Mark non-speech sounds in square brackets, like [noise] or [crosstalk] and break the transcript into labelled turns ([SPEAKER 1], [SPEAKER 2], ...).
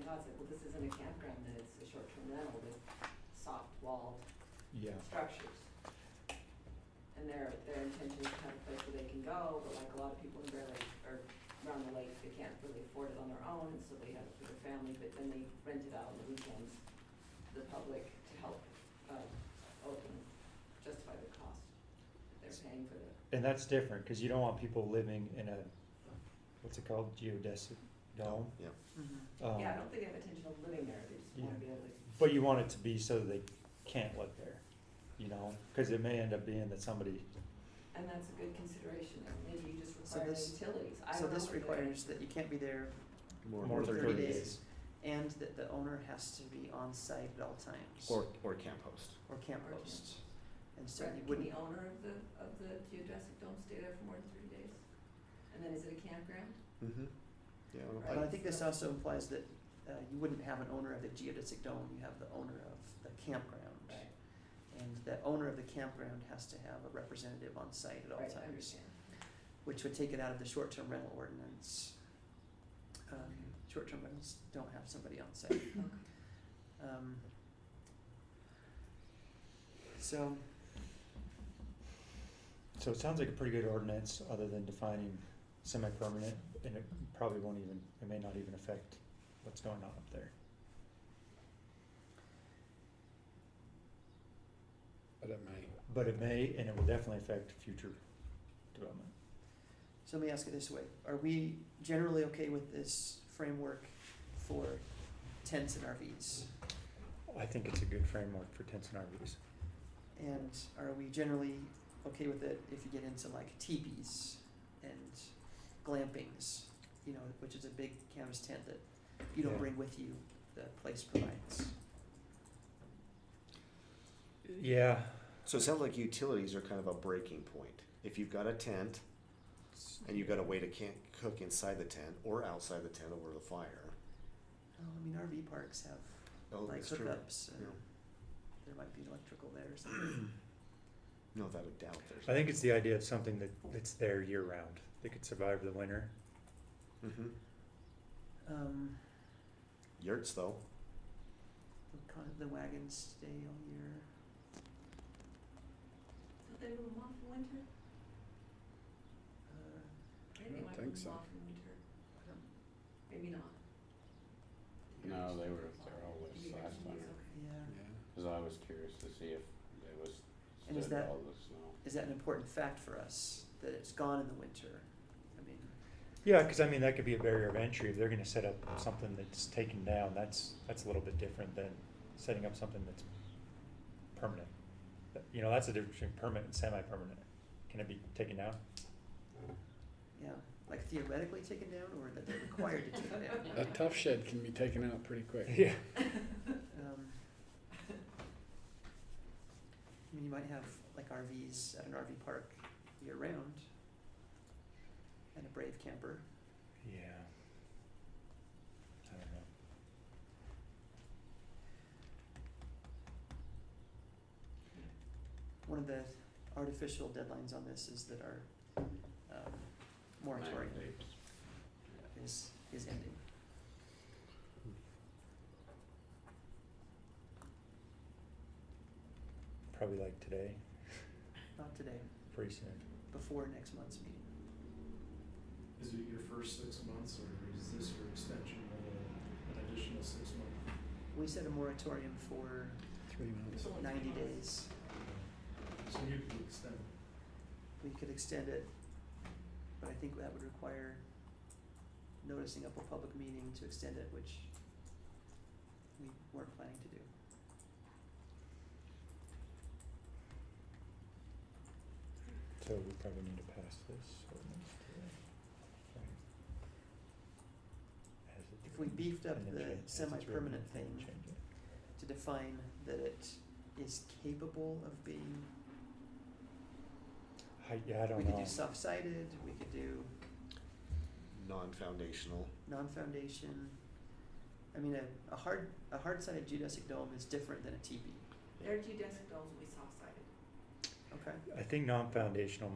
[SPEAKER 1] this isn't a campground, that it's a short-term rental with soft walled
[SPEAKER 2] Yeah,
[SPEAKER 1] structures. And their, their intention is to have a place where they can go, but like a lot of people in Bear Lake or around the lake, they can't really afford it on their own, and so they have it for their family, but then they rent it out on the weekends, to the public to help, um, open, justify the cost that they're paying for the,
[SPEAKER 2] and that's different, cause you don't want people living in a, what's it called, geodesic dome?
[SPEAKER 3] Yeah.
[SPEAKER 1] Mm-hmm.
[SPEAKER 4] Oh.
[SPEAKER 2] Um,
[SPEAKER 1] yeah, I don't think they have intention of living there, they just wanna be able to.
[SPEAKER 2] But you want it to be so that they can't live there, you know, cause it may end up being that somebody,
[SPEAKER 1] And that's a good consideration, and maybe you just
[SPEAKER 4] So
[SPEAKER 1] require the
[SPEAKER 4] this-
[SPEAKER 1] utilities, I
[SPEAKER 4] So
[SPEAKER 1] don't know
[SPEAKER 4] this
[SPEAKER 1] what the-
[SPEAKER 4] requires that you can't be there
[SPEAKER 2] More than 30 days.
[SPEAKER 4] and that the owner has to be on site at all times.
[SPEAKER 3] Or, or camp host.
[SPEAKER 4] Or camp
[SPEAKER 1] Or camp.
[SPEAKER 4] host. And so
[SPEAKER 1] Right,
[SPEAKER 4] you
[SPEAKER 1] Can
[SPEAKER 4] wouldn't,
[SPEAKER 1] the owner of the, of the geodesic dome stay there for more than thirty days? And then is it a campground?
[SPEAKER 3] Mm-hmm. Yeah, I don't-
[SPEAKER 4] but
[SPEAKER 1] Right.
[SPEAKER 4] I think this also implies that uh you wouldn't have an owner of the geodesic dome, you have the owner of the campground. And that owner of the campground has to have a representative on site at all
[SPEAKER 1] Right,
[SPEAKER 4] times.
[SPEAKER 1] I understand.
[SPEAKER 4] which would take it out of the short-term rental ordinance. Um, short-term rentals don't have somebody on site. Um, so,
[SPEAKER 2] so it sounds like a pretty good ordinance, other than defining semi-permanent, and it probably won't even, it may not even affect what's going on up there.
[SPEAKER 5] But it may.
[SPEAKER 2] But it may, and it will definitely affect future development.
[SPEAKER 4] so let me ask it this way, are we generally okay with this framework for tents and RVs?
[SPEAKER 2] I think it's a good framework for tents and RVs.
[SPEAKER 4] And are we generally okay with it if you get into like teepees and glampings, you know, which is a big canvas tent that you don't
[SPEAKER 2] Yeah.
[SPEAKER 4] bring with you, the place provides?
[SPEAKER 2] Yeah,
[SPEAKER 3] So it sounds like utilities are kind of a breaking point. If you've got a tent and you've got a way to can't cook inside the tent or outside the tent over the fire.
[SPEAKER 4] Oh, I mean, RV parks have
[SPEAKER 3] Oh,
[SPEAKER 4] like
[SPEAKER 3] that's true.
[SPEAKER 4] hookups and
[SPEAKER 3] Yeah.
[SPEAKER 4] there might be electrical there or something.
[SPEAKER 3] [clears throat] No, without a doubt
[SPEAKER 2] I
[SPEAKER 3] there's.
[SPEAKER 2] think it's the idea of something that, that's there year round, that could survive the winter.
[SPEAKER 3] Mm-hmm.
[SPEAKER 4] Um,
[SPEAKER 3] Yurts though.
[SPEAKER 4] the kind of the wagons stay all year.
[SPEAKER 1] Don't they move them off in winter?
[SPEAKER 4] Uh,
[SPEAKER 1] Maybe
[SPEAKER 5] don't
[SPEAKER 1] they might
[SPEAKER 5] think
[SPEAKER 1] move them
[SPEAKER 5] so.
[SPEAKER 1] off in winter,
[SPEAKER 4] I don't-
[SPEAKER 1] maybe not.
[SPEAKER 5] No, they were there all this
[SPEAKER 1] Maybe
[SPEAKER 5] last
[SPEAKER 1] it's
[SPEAKER 5] winter,
[SPEAKER 1] okay.
[SPEAKER 4] yeah.
[SPEAKER 5] cause I was curious to see if it was
[SPEAKER 4] And is
[SPEAKER 5] stood
[SPEAKER 4] that-
[SPEAKER 5] all the snow.
[SPEAKER 4] Is that an important fact for us that it's gone in the winter? I mean,
[SPEAKER 2] Yeah, cause I mean, that could be a barrier of entry, if they're gonna set up something that's taken down, that's, that's a little bit different than setting up something that's permanent. That- You know, that's the difference between permanent and semi-permanent, can it be taken down?
[SPEAKER 4] yeah, like theoretically taken down or that they're required to take it down?
[SPEAKER 5] A tough shed can be taken out
[SPEAKER 2] [laughs]
[SPEAKER 5] pretty quick.
[SPEAKER 4] Um, I mean, you might have like RVs at an RV park year round and a brave camper.
[SPEAKER 2] Yeah. I don't know.
[SPEAKER 4] One of the artificial deadlines on this is that our um, moratorium
[SPEAKER 5] Mandates.
[SPEAKER 4] is, is ending.
[SPEAKER 2] Probably like today,
[SPEAKER 4] Not today,
[SPEAKER 2] pretty soon.
[SPEAKER 4] before next month's meeting.
[SPEAKER 6] Is it your first six months or is this your extension of a, an additional six month?
[SPEAKER 4] We set a moratorium for
[SPEAKER 5] Three months.
[SPEAKER 1] Only three
[SPEAKER 4] ninety
[SPEAKER 1] months.
[SPEAKER 4] days.
[SPEAKER 6] So you can extend it.
[SPEAKER 4] We could extend it, but I think that would require noticing up a public meeting to extend it, which we weren't planning to do.
[SPEAKER 2] So we probably need to pass this ordinance today. Right. As it's
[SPEAKER 4] If we
[SPEAKER 2] written,
[SPEAKER 4] beefed up
[SPEAKER 2] and then
[SPEAKER 4] the
[SPEAKER 2] change- as it's written,
[SPEAKER 4] semi-permanent
[SPEAKER 2] and then
[SPEAKER 4] thing
[SPEAKER 2] change it.
[SPEAKER 4] to define that it is capable of being,
[SPEAKER 2] I, yeah, I don't
[SPEAKER 4] we
[SPEAKER 2] know.
[SPEAKER 4] could do soft-sided, we could do
[SPEAKER 3] Non-foundational.
[SPEAKER 4] non-foundation. I mean, a, a hard, a hard-sided geodesic dome is different than a teepee,
[SPEAKER 1] Their geodesic domes will be soft-sided.
[SPEAKER 4] okay?
[SPEAKER 2] I think non-foundational